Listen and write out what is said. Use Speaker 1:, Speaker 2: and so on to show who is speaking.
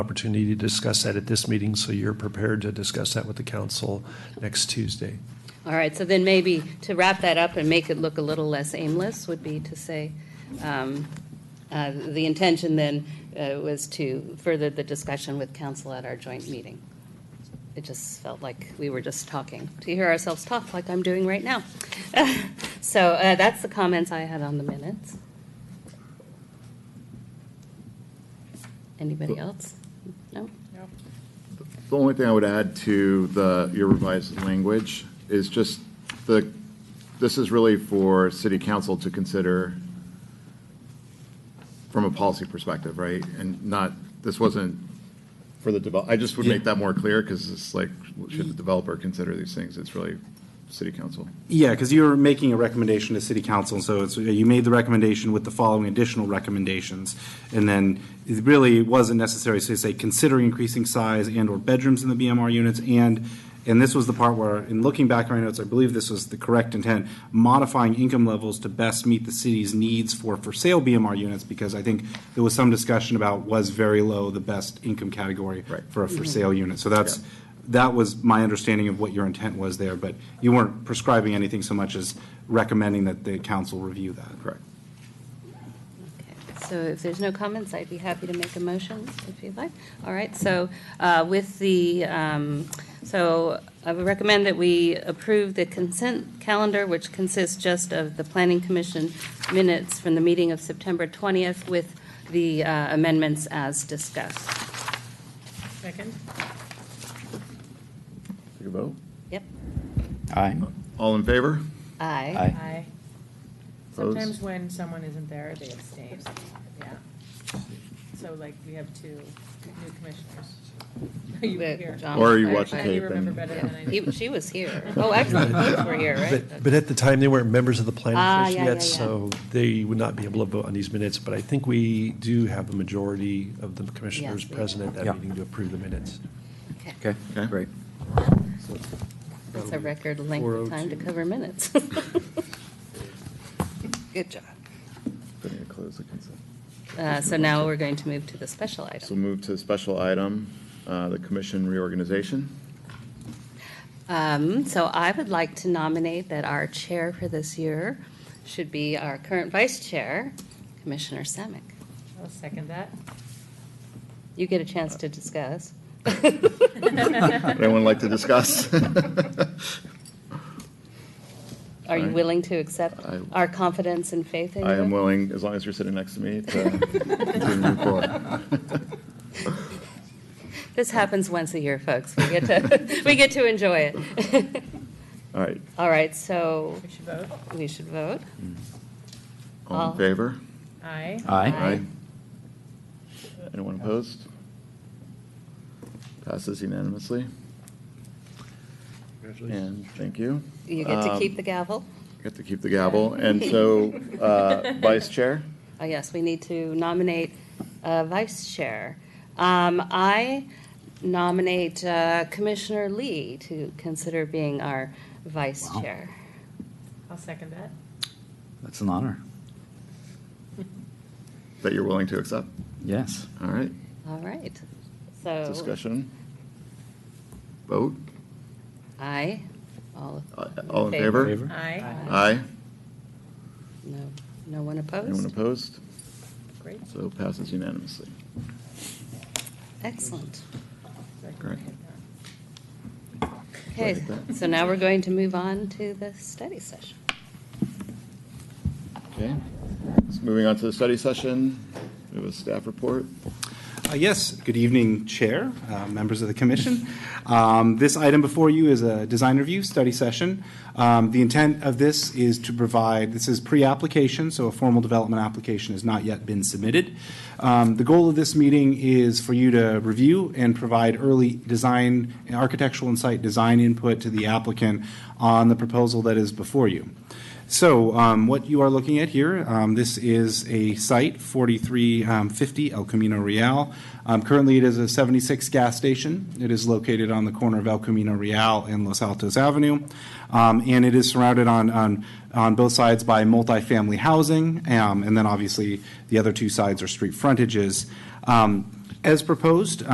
Speaker 1: opportunity to discuss that at this meeting, so you're prepared to discuss that with the council next Tuesday.
Speaker 2: All right, so then maybe to wrap that up and make it look a little less aimless would be to say, um, uh, the intention then uh, was to further the discussion with council at our joint meeting. It just felt like we were just talking, to hear ourselves talk like I'm doing right now. So uh, that's the comments I had on the minutes. Anybody else? No?
Speaker 3: The only thing I would add to the, your revised language is just the, this is really for city council to consider from a policy perspective, right? And not, this wasn't for the develop, I just would make that more clear because it's like, should the developer consider these things? It's really city council.
Speaker 4: Yeah, because you're making a recommendation to city council, so it's, uh, you made the recommendation with the following additional recommendations. And then it really wasn't necessary to say, consider increasing size and/or bedrooms in the BMR units. And, and this was the part where, in looking back at my notes, I believe this was the correct intent, modifying income levels to best meet the city's needs for for-sale BMR units, because I think there was some discussion about was very low the best income category
Speaker 3: Right.
Speaker 4: for a for-sale unit. So that's, that was my understanding of what your intent was there, but you weren't prescribing anything so much as recommending that the council review that.
Speaker 3: Correct.
Speaker 2: Okay, So if there's no comments, I'd be happy to make a motion if you'd like. All right, so uh, with the, um, so I would recommend that we approve the consent calendar, which consists just of the Planning Commission minutes from the meeting of September 20th with the uh, amendments as discussed.
Speaker 5: Second?
Speaker 3: Take a vote.
Speaker 2: Yep,
Speaker 6: Aye.
Speaker 3: All in favor?
Speaker 2: aye.
Speaker 6: Aye.
Speaker 5: Aye.
Speaker 3: Opposed?
Speaker 5: Sometimes when someone isn't there, they abstain, yeah. So like, we have two new commissioners. Are you
Speaker 2: But
Speaker 5: here?
Speaker 2: John
Speaker 3: Or you watch the
Speaker 2: clarified.
Speaker 3: tape.
Speaker 5: You remember better than I do.
Speaker 2: He- She was here. Oh, actually, both were here, right?
Speaker 1: But, but at the time, they weren't members of the
Speaker 2: Ah,
Speaker 1: planning
Speaker 2: yeah,
Speaker 1: commission
Speaker 2: yeah,
Speaker 1: yet,
Speaker 2: yeah.
Speaker 1: so they would not be able to vote on these minutes. But I think we do have a majority of the commissioners
Speaker 2: Yes, we
Speaker 1: present at
Speaker 6: Yeah.
Speaker 1: that meeting to approve the minutes.
Speaker 6: Okay,
Speaker 3: Okay.
Speaker 6: great.
Speaker 2: That's a record length of time to
Speaker 1: 4:02.
Speaker 2: cover minutes. Good job.
Speaker 3: Then you close the consent.
Speaker 2: Uh, So now we're going to move to the special
Speaker 3: So
Speaker 2: item.
Speaker 3: move to special item, uh, the commission reorganization.
Speaker 2: Um, So I would like to nominate that our chair for this year should be our current vice chair, Commissioner Semick.
Speaker 5: I'll second that.
Speaker 2: You get a chance to discuss.
Speaker 3: Anyone like to discuss?
Speaker 2: Are you
Speaker 3: Alright.
Speaker 2: willing to accept
Speaker 3: I-
Speaker 2: our confidence and faith in you?
Speaker 3: I am willing, as long as you're sitting next to me, to to move forward.
Speaker 2: This happens once a year, folks. We get to, we get to enjoy it.
Speaker 3: All right,
Speaker 2: All right, so
Speaker 5: We should vote.
Speaker 2: we should vote.
Speaker 3: all
Speaker 2: All-
Speaker 3: in favor?
Speaker 5: Aye.
Speaker 6: Aye.
Speaker 2: Aye.
Speaker 3: Anyone opposed? Passes unanimously, and thank you.
Speaker 2: You get to
Speaker 3: Um,
Speaker 2: keep the gavel?
Speaker 3: Get to keep the gavel, and so, uh, Vice Chair?
Speaker 2: Oh, yes, we need to nominate a vice chair. Um, I nominate uh, Commissioner Lee to consider being our vice
Speaker 6: Wow.
Speaker 2: chair.
Speaker 5: I'll second that.
Speaker 6: That's an honor.
Speaker 3: That you're willing to accept?
Speaker 6: Yes.
Speaker 3: All right,
Speaker 2: All right, so
Speaker 3: discussion? Vote? Uh,
Speaker 2: aye, all,
Speaker 3: All in favor?
Speaker 6: Favor?
Speaker 5: Aye.
Speaker 3: Aye.
Speaker 2: no, no one
Speaker 3: Anyone
Speaker 2: opposed?
Speaker 3: opposed?
Speaker 5: Great.
Speaker 3: So passes unanimously.
Speaker 2: Excellent.
Speaker 3: Great.
Speaker 2: Okay,
Speaker 3: Like that.
Speaker 2: so now we're going to move on to the study session.
Speaker 3: Okay, so moving on to the study session, we have a staff report.
Speaker 4: Uh, Yes, good evening, Chair, uh, members of the commission. Um, This item before you is a design review study session. Um, The intent of this is to provide, this is pre-application, so a formal development application has not yet been submitted. Um, The goal of this meeting is for you to review and provide early design, architectural and site design input to the applicant on the proposal that is before you. So um, what you are looking at here, um, this is a site, 4350 El Camino Real. Um, Currently, it is a 76 gas station. It is located on the corner of El Camino Real and Los Altos Avenue. Um, And it is surrounded on, on, on both sides by multifamily housing. um, And then obviously, the other two sides are street frontages. Um, As proposed,